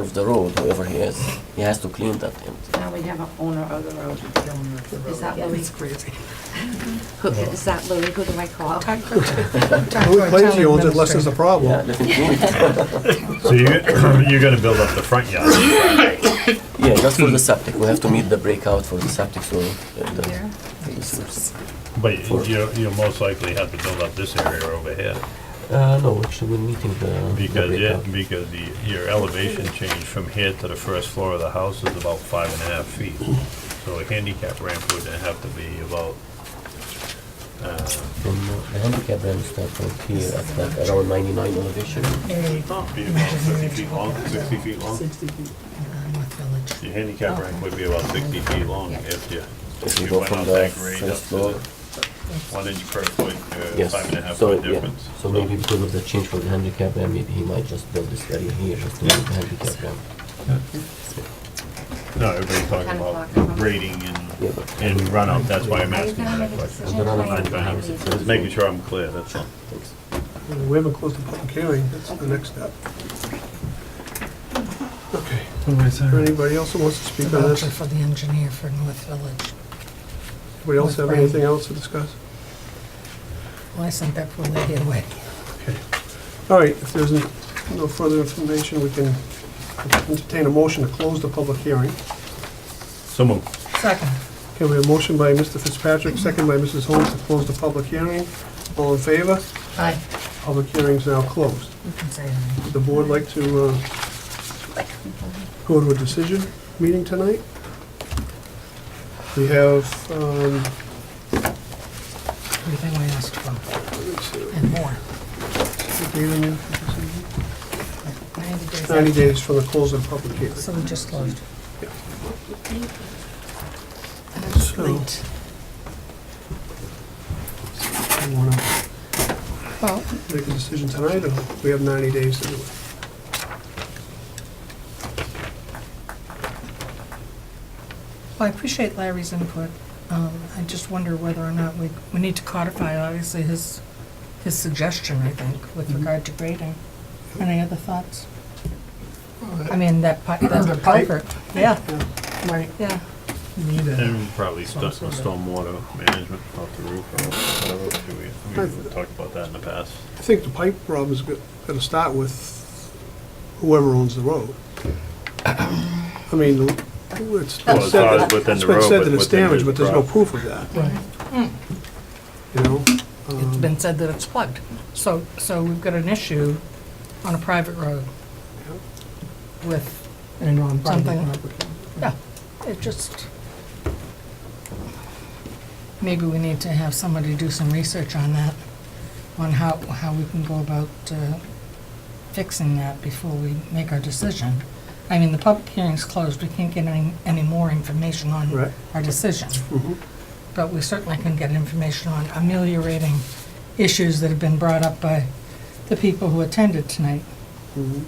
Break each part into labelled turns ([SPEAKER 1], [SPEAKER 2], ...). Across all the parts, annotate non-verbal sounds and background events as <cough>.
[SPEAKER 1] of the road, whoever he is, he has to clean that end.
[SPEAKER 2] Now we have an owner of the road. Is that Louis?
[SPEAKER 3] That's crazy.
[SPEAKER 2] Who, is that Louis? Who do I call?
[SPEAKER 3] Who
[SPEAKER 4] Claims he owns it unless there's a
[SPEAKER 1] Yeah,
[SPEAKER 4] problem.
[SPEAKER 1] let him clean it.
[SPEAKER 5] So you, <coughs> you're gonna build up the front yard.
[SPEAKER 1] Yeah, that's for the septic, we have to meet the breakout for the septic, so. uh, the- the sewers.
[SPEAKER 5] But you- you, you'll most likely have to build up this area over here,
[SPEAKER 1] Uh, no, actually, we're meeting the. the
[SPEAKER 5] because
[SPEAKER 1] breakout.
[SPEAKER 5] it, because the, your elevation change from here to the first floor of the house is about five and a half feet. So a handicap ramp would have to be about, uh,
[SPEAKER 1] From uh, the handicap ramp start from here at like around ninety-nine elevation.
[SPEAKER 5] uh, be about fifty feet long, sixty feet long.
[SPEAKER 3] Sixty feet. Uh, North Village.
[SPEAKER 5] Your handicap ramp would be about sixty feet long if you,
[SPEAKER 1] If
[SPEAKER 5] if
[SPEAKER 1] you
[SPEAKER 5] you
[SPEAKER 1] go
[SPEAKER 5] went
[SPEAKER 1] from
[SPEAKER 5] out
[SPEAKER 1] the
[SPEAKER 5] that grade up
[SPEAKER 1] first
[SPEAKER 5] to
[SPEAKER 1] floor.
[SPEAKER 5] the one inch per foot, uh,
[SPEAKER 1] Yes.
[SPEAKER 5] five and a half
[SPEAKER 1] So,
[SPEAKER 5] foot
[SPEAKER 1] yeah.
[SPEAKER 5] difference.
[SPEAKER 1] So maybe because of the change for the handicap ramp, maybe he might just build this area here just to meet the handicap ramp.
[SPEAKER 5] No, everybody's talking
[SPEAKER 2] Kind of
[SPEAKER 5] about
[SPEAKER 2] block.
[SPEAKER 5] grading
[SPEAKER 1] Yeah,
[SPEAKER 5] and,
[SPEAKER 1] but-
[SPEAKER 5] and runout, that's why I'm
[SPEAKER 2] Are you
[SPEAKER 5] asking
[SPEAKER 2] gonna
[SPEAKER 5] that
[SPEAKER 2] make a decision
[SPEAKER 1] I'm
[SPEAKER 5] question.
[SPEAKER 1] gonna
[SPEAKER 2] tonight?
[SPEAKER 1] find out.
[SPEAKER 5] Just making sure I'm clear, that's all.
[SPEAKER 1] Thanks.
[SPEAKER 4] We haven't closed the public hearing, that's the next step. Okay, is there anybody else who wants to
[SPEAKER 3] The
[SPEAKER 4] speak on
[SPEAKER 3] voucher
[SPEAKER 4] this?
[SPEAKER 3] for the engineer for North Village.
[SPEAKER 4] Anybody else have anything else to discuss?
[SPEAKER 3] Well, I sent that poor lady away.
[SPEAKER 4] All right, if there's no further information, we can entertain a motion to close the public hearing.
[SPEAKER 5] So moved.
[SPEAKER 3] Second.
[SPEAKER 4] Okay, we have a motion by Mr. Fitzpatrick, second by Mrs. Holmes to close the public hearing. All in favor?
[SPEAKER 3] Aye.
[SPEAKER 4] Public hearing's now closed.
[SPEAKER 3] You can say aye.
[SPEAKER 4] Would the board like to uh, go to a decision meeting tonight? We have, um,
[SPEAKER 3] Everything we asked for
[SPEAKER 4] let's see,
[SPEAKER 3] and more.
[SPEAKER 4] what date on it?
[SPEAKER 3] Ninety days.
[SPEAKER 4] 90 days from the close of the public hearing.
[SPEAKER 3] So we just closed.
[SPEAKER 4] Yeah.
[SPEAKER 3] And it's
[SPEAKER 4] So-
[SPEAKER 3] late.
[SPEAKER 4] Do you want to
[SPEAKER 3] Well,
[SPEAKER 4] make a decision tonight, or we have 90 days to do it?
[SPEAKER 3] I appreciate Larry's input. Um, I just wonder whether or not we, we need to codify, obviously, his, his suggestion, I think, with
[SPEAKER 4] Mm-hmm.
[SPEAKER 3] regard to grading. Any other thoughts? I mean, that pipe,
[SPEAKER 4] The <coughs>
[SPEAKER 3] that
[SPEAKER 4] pipe?
[SPEAKER 3] culvert. Yeah,
[SPEAKER 4] Might
[SPEAKER 3] yeah.
[SPEAKER 4] need it.
[SPEAKER 5] And probably st-
[SPEAKER 3] Sounds good.
[SPEAKER 5] stormwater management off the roof or whatever. We- We've talked about that in the past.
[SPEAKER 4] I think the pipe problem is going to start with whoever owns the road. I mean, it's
[SPEAKER 5] Well,
[SPEAKER 4] been
[SPEAKER 5] as
[SPEAKER 4] said
[SPEAKER 5] far
[SPEAKER 4] that
[SPEAKER 5] as within
[SPEAKER 4] it's
[SPEAKER 5] the
[SPEAKER 4] been
[SPEAKER 5] road,
[SPEAKER 4] said
[SPEAKER 5] but
[SPEAKER 4] that it's
[SPEAKER 5] within
[SPEAKER 4] damaged,
[SPEAKER 5] the
[SPEAKER 4] but there's no
[SPEAKER 5] pro-
[SPEAKER 4] proof of that,
[SPEAKER 3] Right.
[SPEAKER 4] you know?
[SPEAKER 3] It's
[SPEAKER 4] Um,
[SPEAKER 3] been said that it's plugged. So, so we've got an issue on a private road with
[SPEAKER 6] And on private
[SPEAKER 3] Something.
[SPEAKER 6] property.
[SPEAKER 3] Yeah, it just, maybe we need to have somebody do some research on that, on how, how we can go about uh, fixing that before we make our decision. I mean, the public hearing's closed, we can't get any, any more information on
[SPEAKER 4] Right.
[SPEAKER 3] our decision.
[SPEAKER 4] Mhm.
[SPEAKER 3] But we certainly can get information on ameliorating issues that have been brought up by the people who attended tonight.
[SPEAKER 4] Mhm.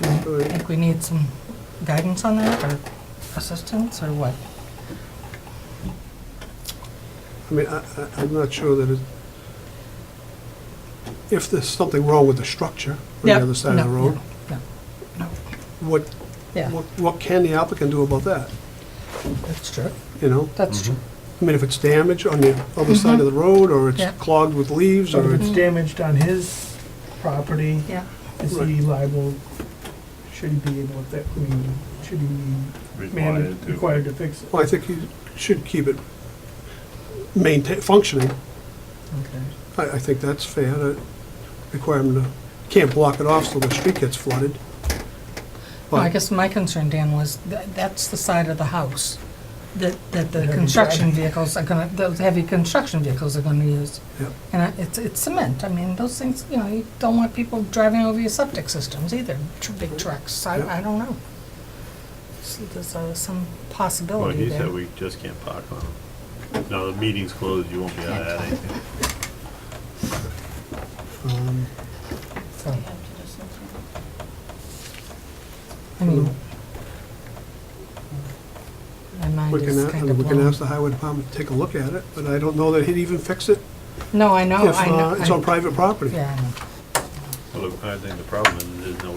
[SPEAKER 3] I think we need some guidance on that, or assistance, or what?
[SPEAKER 4] I mean, I, I- I'm not sure that it, if there's something wrong with the structure on the
[SPEAKER 3] Yeah,
[SPEAKER 4] other side of the
[SPEAKER 3] no,
[SPEAKER 4] road,
[SPEAKER 3] no, no,
[SPEAKER 4] what,
[SPEAKER 3] Yeah,
[SPEAKER 4] what what can the applicant do about that,
[SPEAKER 3] that's true.
[SPEAKER 4] you know?
[SPEAKER 3] That's true.
[SPEAKER 4] I mean, if it's damaged on the other side of the road, or it's
[SPEAKER 3] Mm-hmm. Yeah. Mm-hmm.
[SPEAKER 4] clogged with leaves,
[SPEAKER 6] So
[SPEAKER 4] or
[SPEAKER 6] if
[SPEAKER 4] it's,
[SPEAKER 6] it's damaged on his property,
[SPEAKER 3] Yeah,
[SPEAKER 6] is
[SPEAKER 4] Right.
[SPEAKER 6] he liable, should he be able, to I mean, should he be
[SPEAKER 5] Required
[SPEAKER 6] mandated,
[SPEAKER 5] to-
[SPEAKER 6] required to fix it?
[SPEAKER 4] well, I think you should keep it maintain, functioning.
[SPEAKER 6] Okay.
[SPEAKER 4] I, I think that's fair, to require them to, can't block it off so the street gets flooded.
[SPEAKER 3] well, I
[SPEAKER 4] But-
[SPEAKER 3] guess my concern, Dan, was that, that's the side of the house that, that the
[SPEAKER 6] Heavy
[SPEAKER 3] construction
[SPEAKER 6] driving.
[SPEAKER 3] vehicles are gonna, those heavy construction vehicles are gonna use.
[SPEAKER 4] Yep.
[SPEAKER 3] And I- it's, it's cement, I mean, those things, you know, you don't want people driving over your septic systems either, tr- big trucks,
[SPEAKER 4] Yep.
[SPEAKER 3] I, I don't know. So There's uh,
[SPEAKER 2] Oh,
[SPEAKER 3] some
[SPEAKER 5] Well,
[SPEAKER 3] possibility
[SPEAKER 5] he
[SPEAKER 3] there.
[SPEAKER 5] said we just can't park on them. Now, the meeting's closed, you won't be able to add anything.
[SPEAKER 4] Um,
[SPEAKER 3] so,
[SPEAKER 2] We have to do something.
[SPEAKER 3] I mean,
[SPEAKER 4] Hmm.
[SPEAKER 3] my mind
[SPEAKER 4] We can,
[SPEAKER 3] is
[SPEAKER 4] a-
[SPEAKER 3] kind of
[SPEAKER 4] we can
[SPEAKER 3] blown.
[SPEAKER 4] ask the highway department to take a look at it, but I don't know that he'd even fix it
[SPEAKER 3] No, I know,
[SPEAKER 4] if
[SPEAKER 3] I
[SPEAKER 4] uh,
[SPEAKER 3] know.
[SPEAKER 4] it's
[SPEAKER 3] I-
[SPEAKER 4] on private property.
[SPEAKER 3] Yeah, I know.
[SPEAKER 5] Well, if I think the problem is there's no